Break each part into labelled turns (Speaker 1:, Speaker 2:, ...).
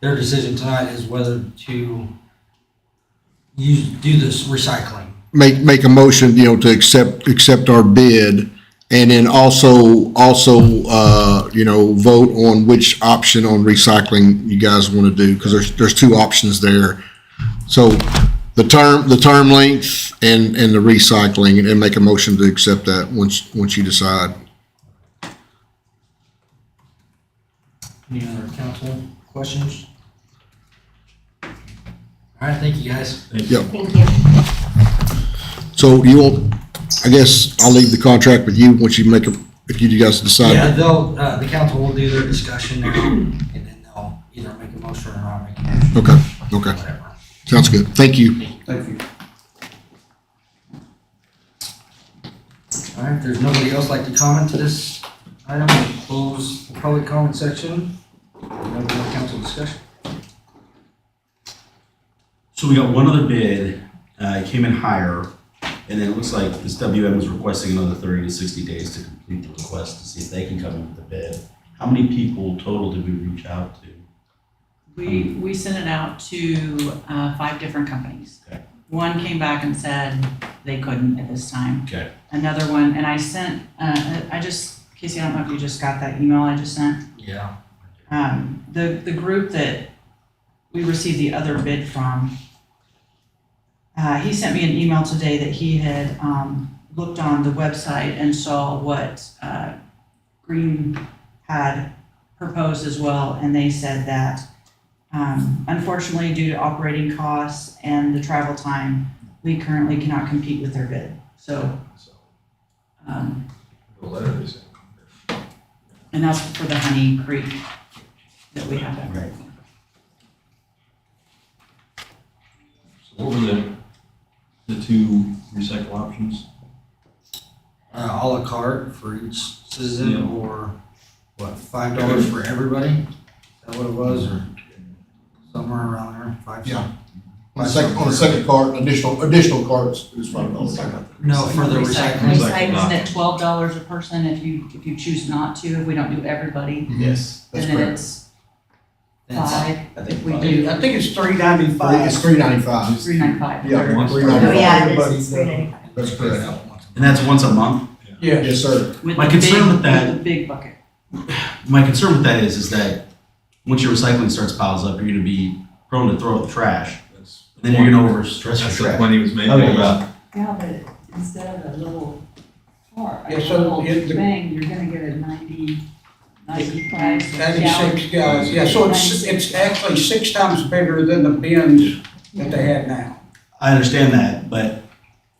Speaker 1: Their decision tonight is whether to use, do this recycling.
Speaker 2: make, make a motion, you know, to accept, accept our bid. And then also, also, uh, you know, vote on which option on recycling you guys want to do, because there's, there's two options there. So the term, the term length and, and the recycling, and then make a motion to accept that once, once you decide.
Speaker 1: Any other council questions? All right, thank you, guys.
Speaker 3: Thank you.
Speaker 2: So you will, I guess I'll leave the contract with you once you make a, if you guys
Speaker 1: Yeah,
Speaker 2: decide.
Speaker 1: they'll, uh, the council will do their discussion now, and then they'll either make a motion or not make a motion,
Speaker 2: Okay, okay,
Speaker 1: whatever.
Speaker 2: sounds good. Thank you.
Speaker 4: Thank you.
Speaker 1: All right, if there's nobody else like to comment to this item, we'll close the public comment section. No more council discussion.
Speaker 5: So we got one other bid, uh, it came in higher, and then it looks like this WM is requesting another thirty to sixty days to complete the request to see if they can come in with a bid. How many people total did we reach out to?
Speaker 6: We, we sent it out to uh, five different companies.
Speaker 5: Okay.
Speaker 6: One came back and said they couldn't at this time.
Speaker 5: Okay.
Speaker 6: Another one, and I sent, uh, I just, Casey, I don't know if you just got that email I just sent.
Speaker 1: Yeah.
Speaker 6: Um, The, the group that we received the other bid from, uh, he sent me an email today that he had um, looked on the website and saw what uh, Green had proposed as well, and they said that um, unfortunately, due to operating costs and the travel time, we currently cannot compete with their bid. So, um,
Speaker 4: The letter is.
Speaker 6: and that's for the Honey Creek that we have.
Speaker 5: Right.
Speaker 4: So what were the, the two recycle options?
Speaker 1: Uh, à la carte for each citizen
Speaker 4: Yeah.
Speaker 1: or what, five dollars for everybody? Is that what it was or somewhere around there, five?
Speaker 2: Yeah.
Speaker 1: some-
Speaker 2: On the second, on the second cart, additional, additional carts is five dollars.
Speaker 1: No, for the recycling.
Speaker 6: Recycling is at twelve dollars a person if you, if you choose not to, if we don't do everybody,
Speaker 5: Yes.
Speaker 6: then it's
Speaker 1: That's-
Speaker 6: five,
Speaker 5: I
Speaker 6: if
Speaker 5: think
Speaker 6: we
Speaker 5: five.
Speaker 6: do
Speaker 7: I think it's three ninety-five.
Speaker 2: It's three ninety-five.
Speaker 6: three nine five.
Speaker 2: Yeah,
Speaker 4: Once.
Speaker 2: three
Speaker 4: Oh,
Speaker 7: Oh,
Speaker 2: ninety-five.
Speaker 3: yeah, it
Speaker 7: Everybody's
Speaker 3: is. It's great.
Speaker 7: done.
Speaker 2: That's
Speaker 1: That
Speaker 2: correct.
Speaker 1: one.
Speaker 5: And that's once a month?
Speaker 7: Yeah.
Speaker 2: Yes, sir.
Speaker 6: With
Speaker 5: My
Speaker 6: the
Speaker 5: concern
Speaker 6: big-
Speaker 5: with that-
Speaker 6: The big bucket.
Speaker 5: My concern with that is, is that once your recycling starts piles up, you're gonna be prone to throw out the trash.
Speaker 4: That's
Speaker 5: Then you're gonna overstress your
Speaker 4: That's the
Speaker 5: trash.
Speaker 4: point he was making
Speaker 5: Okay.
Speaker 4: about,
Speaker 8: Yeah, but instead of a little car, a
Speaker 7: Yeah, so
Speaker 8: little
Speaker 7: it- the-
Speaker 8: thing, you're gonna get a ninety, ninety-five gallon.
Speaker 7: Ninety-six gallons, yeah, so it's, it's actually six times bigger than the bins that they have now.
Speaker 5: I understand that, but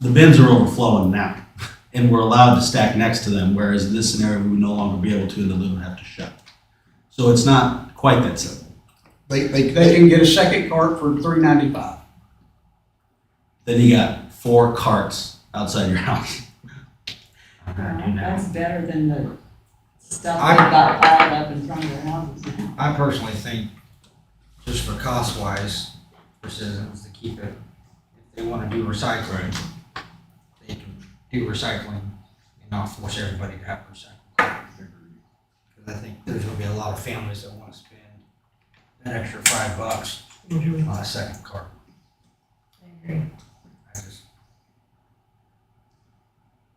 Speaker 5: the bins are overflowing now, and we're allowed to stack next to them, whereas in this scenario, we would no longer be able to, and the lid would have to shut. So it's not quite that simple.
Speaker 2: They, they,
Speaker 7: They
Speaker 2: they,
Speaker 7: can get a second cart for three ninety-five.
Speaker 5: Then you got four carts outside your house.
Speaker 1: I'm gonna do now.
Speaker 8: That's better than the stuff
Speaker 1: I-
Speaker 8: that got piled up in front of their houses now.
Speaker 1: I personally think, just for cost wise, for citizens to keep it, if they wanna do recycling, they can do recycling and not force everybody to have recycling. Cause I think there's gonna be a lot of families that wanna spend that extra five bucks on a second cart. I just-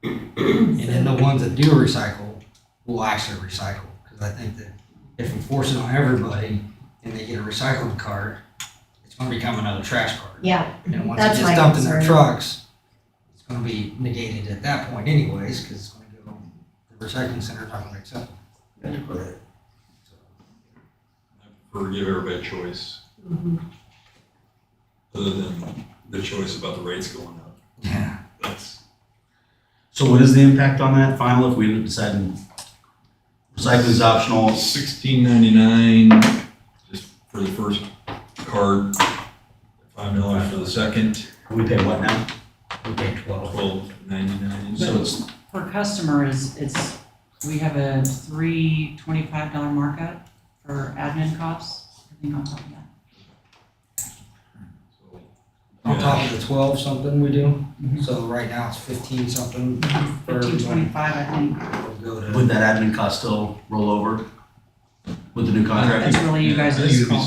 Speaker 1: And then the ones that do recycle will actually recycle, cause I think that if we force it on everybody and they get a recycling cart, it's gonna become another trash cart.
Speaker 3: Yeah,
Speaker 1: And once
Speaker 3: That's
Speaker 1: it
Speaker 3: my
Speaker 1: gets dumped in their
Speaker 3: concern.
Speaker 1: trucks, it's gonna be negated at that point anyways, cause it's gonna go, the recycling center's not gonna accept them. So,
Speaker 4: or give everybody a choice, other than the choice about the rates going up.
Speaker 1: Yeah,
Speaker 4: That's,
Speaker 5: So what is the impact on that final if we end up deciding recycling is optional?
Speaker 4: sixteen ninety-nine, just for the first card, five dollars for the second,
Speaker 5: We pay what now?
Speaker 1: we pay twelve.
Speaker 4: twelve ninety-nine.
Speaker 5: So it's,
Speaker 6: Per customer is, it's, we have a three twenty-five dollar markup for admin costs, I think on top of that.
Speaker 1: On
Speaker 4: Yeah.
Speaker 1: top of the twelve something we do,
Speaker 3: Mm-hmm.
Speaker 1: so right now it's fifteen something for
Speaker 6: Fifteen
Speaker 1: everybody.
Speaker 6: twenty-five, I think,
Speaker 1: We'll go to.
Speaker 5: would that admin cost still roll over with the new contract?
Speaker 6: that's really you guys'
Speaker 4: I think it'd be
Speaker 6: call.